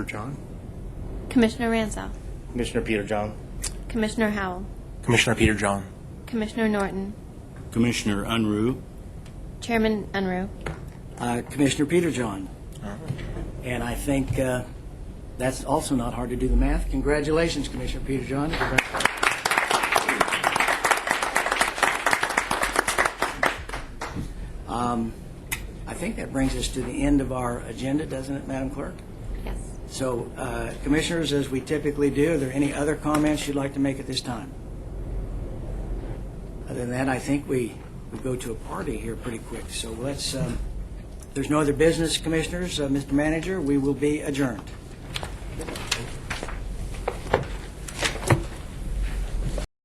John? Commissioner Ransell, Commissioner Peter John. Commissioner Howell, Commissioner Peter John. Commissioner Norton, Commissioner Unruh. Chairman Unruh. Uh, Commissioner Peter John. And I think uh, that's also not hard to do the math. Congratulations, Commissioner Peter John. Congratulations. Um, I think that brings us to the end of our agenda, doesn't it, Madam Clerk? Yes. So, uh, Commissioners, as we typically do, are there any other comments you'd like to make at this time? Other than that, I think we, we go to a party here pretty quick, so let's, um, if there's no other business, Commissioners, uh, Mr. Manager, we will be adjourned.